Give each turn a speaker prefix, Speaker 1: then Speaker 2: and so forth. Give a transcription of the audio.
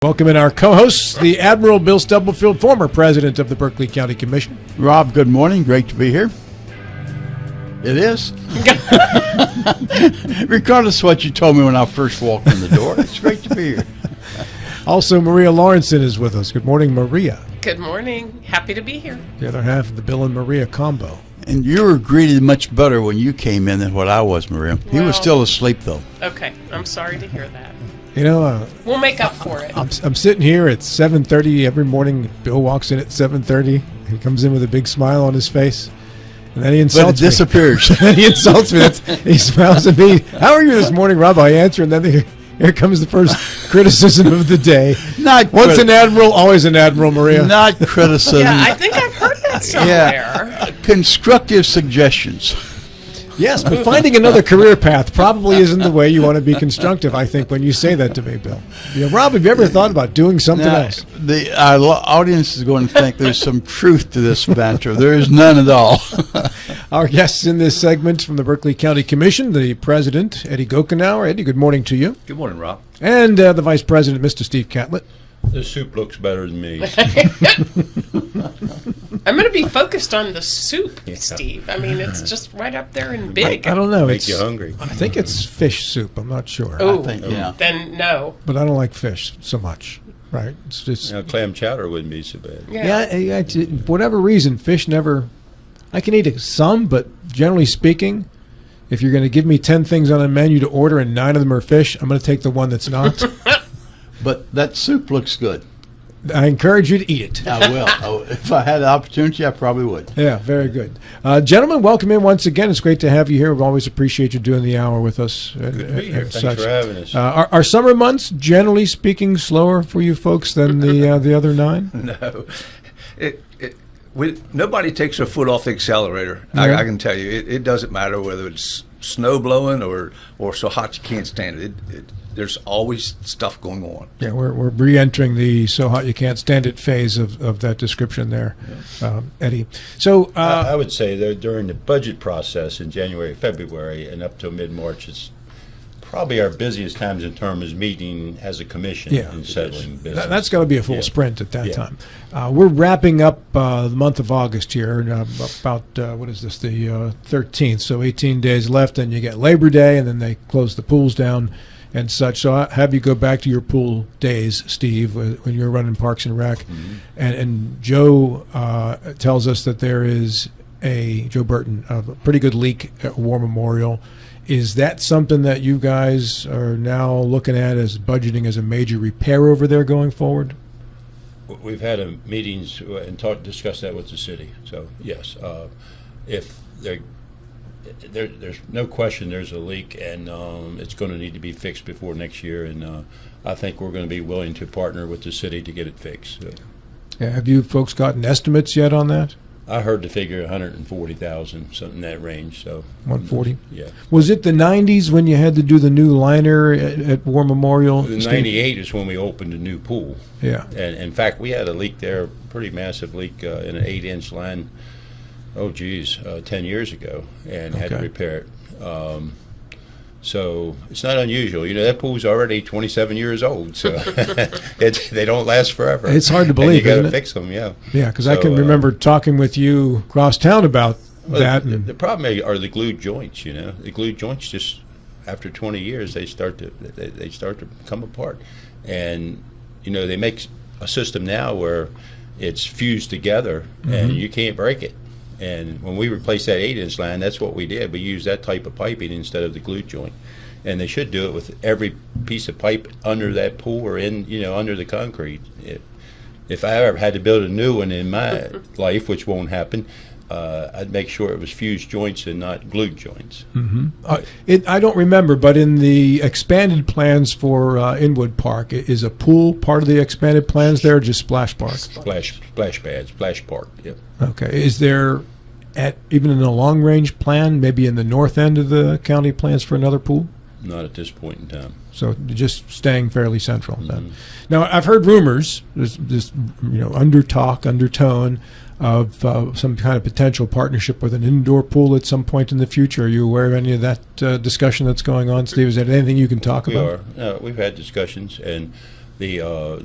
Speaker 1: Welcome in our co-hosts, the Admiral Bill Stubblefield, former president of the Berkeley County Commission.
Speaker 2: Rob, good morning. Great to be here. It is. Regardless of what you told me when I first walked in the door, it's great to be here.
Speaker 1: Also, Maria Lawrenson is with us. Good morning, Maria.
Speaker 3: Good morning. Happy to be here.
Speaker 1: The other half of the Bill and Maria combo.
Speaker 2: And you were greeted much better when you came in than what I was, Maria. He
Speaker 3: Well-
Speaker 2: was still asleep, though.
Speaker 3: Okay, I'm sorry to hear that.
Speaker 1: You know, uh,
Speaker 3: We'll make up for it.
Speaker 1: I'm, I'm sitting here at 7.30 every morning. Bill walks in at 7.30. He comes in with a big smile on his face. And then he
Speaker 2: But it
Speaker 1: insults me.
Speaker 2: disappears.
Speaker 1: Then he insults me. That's, he smiles at me. How are you this morning, Rob? I answer, and then here, here comes the first criticism of the day.
Speaker 2: Not
Speaker 1: Once
Speaker 2: crit-
Speaker 1: an admiral, always an admiral, Maria.
Speaker 2: Not criticism.
Speaker 3: Yeah, I think I've heard that somewhere.
Speaker 2: Constructive suggestions.
Speaker 1: Yes, but finding another career path probably isn't the way you want to be constructive, I think, when you say that to me, Bill. Yeah, Rob, have you ever thought about doing something
Speaker 2: Now,
Speaker 1: else?
Speaker 2: the our lo- audience is going to think there's some truth to this banter. There is none at all.
Speaker 1: Our guests in this segment from the Berkeley County Commission, the president, Eddie Gokenauer. Eddie, good morning to you.
Speaker 4: Good morning, Rob.
Speaker 1: And uh, the vice president, Mr. Steve Catlett.
Speaker 4: The soup looks better than me.
Speaker 3: I'm going to be focused on the soup, Steve. I mean, it's just right up there and big.
Speaker 1: I don't know.
Speaker 4: Make
Speaker 1: It's,
Speaker 4: you hungry.
Speaker 1: I think it's fish soup. I'm not sure.
Speaker 3: Oh,
Speaker 2: think, yeah.
Speaker 3: then no.
Speaker 1: But I don't like fish so much, right? It's just,
Speaker 4: Now, clam chowder wouldn't be so bad.
Speaker 3: Yeah.
Speaker 1: yeah, I- I- t- whatever reason, fish never. I can eat some, but generally speaking, if you're going to give me ten things on a menu to order and nine of them are fish, I'm going to take the one that's not.
Speaker 2: But that soup looks good.
Speaker 1: I encourage you to eat it.
Speaker 2: I will. I will. If I had the opportunity, I probably would.
Speaker 1: Yeah, very good, uh, gentlemen. Welcome in once again. It's great to have you here. We always appreciate you doing the hour with us. Good
Speaker 4: to be here. Thanks for having us.
Speaker 1: Uh, are, are summer months generally speaking slower for you folks than the uh, the other nine?
Speaker 5: No, it, it, we, nobody takes their foot off the accelerator. I,
Speaker 1: Yeah.
Speaker 5: I can tell you, it, it doesn't matter whether it's snow blowing or, or so hot you can't stand it. It, it. There's always stuff going on.
Speaker 1: Yeah, we're we're re-entering the so hot you can't stand it phase of, of that description there, um, Eddie. So uh,
Speaker 4: I would say though during the budget process in January, February, and up till mid-March, it's probably our busiest times in terms of meeting as a commission
Speaker 1: Yeah.
Speaker 4: and settling business.
Speaker 1: That, that's got to be a full
Speaker 4: Yeah.
Speaker 1: sprint at that
Speaker 4: Yeah.
Speaker 1: time. Uh, we're wrapping up uh, the month of August here, and, uh, about uh, what is this, the uh, 13th? So 18 days left, and you get Labor Day, and then they close the pools down and such. So I have you go back to your pool days, Steve, when when you're running Parks and Rec, and and Joe uh, tells us that there is a Joe Burton of a pretty good leak at War Memorial. Is that something that you guys are now looking at as budgeting as a major repair over there going forward?
Speaker 4: We've had a meetings and talked, discussed that with the city. So yes, uh, if there, there, there's no question, there's a leak, and um, it's going to need to be fixed before next year. And uh, I think we're going to be willing to partner with the city to get it fixed. So
Speaker 1: Yeah, Have you folks gotten estimates yet on that?
Speaker 4: I heard the figure 140,000, something in that range. So
Speaker 1: 140.
Speaker 4: yeah,
Speaker 1: Was it the 90s when you had to do the new liner at, at War Memorial?
Speaker 4: the
Speaker 1: Steve?
Speaker 4: 98 is when we opened the new pool.
Speaker 1: Yeah.
Speaker 4: And in fact, we had a leak there, pretty massive leak uh, in an eight-inch line. Oh, geez, uh, ten years ago, and had to
Speaker 1: Okay.
Speaker 4: repair it. Um, so it's not unusual. You know that pool's already 27 years old, so it, they don't last forever.
Speaker 1: It's hard to
Speaker 4: And
Speaker 1: believe,
Speaker 4: you gotta
Speaker 1: isn't it?
Speaker 4: fix them, yeah.
Speaker 1: Yeah, because I
Speaker 4: So,
Speaker 1: can
Speaker 4: uh,
Speaker 1: remember talking with you across town about
Speaker 4: well,
Speaker 1: that.
Speaker 4: Uh, The,
Speaker 1: and-
Speaker 4: the problem are the glued joints. You know, the glued joints just after 20 years they start to they, they start to come apart, and you know they make s- a system now where it's fused together
Speaker 1: Mm-hmm.
Speaker 4: and you can't break it. And when we replaced that eight-inch line, that's what we did. We used that type of piping instead of the glue joint. And they should do it with every piece of pipe under that pool or in, you know, under the concrete. It, if I ever had to build a new one in my life, which won't happen, uh, I'd make sure it was fused joints and not glued joints.
Speaker 1: Uh, it, I don't remember, but in the expanded plans for uh, Inwood Park, i- is a pool part of the expanded plans there, or just splash park?
Speaker 4: Splash, splash pads, splash park. Yep.
Speaker 1: Okay, is there, at even in the long range plan, maybe in the north end of the county plans for another pool?
Speaker 4: Not at this point in time.
Speaker 1: So just staying fairly central. Then. Now I've heard rumors, this, this you know under talk, undertone of uh, some kind of potential partnership with an indoor pool at some point in the future. Are you aware of any of that uh, discussion that's going on, Steve? Is there anything you can talk
Speaker 4: We
Speaker 1: about?
Speaker 4: are. Uh, we've had discussions, and the uh,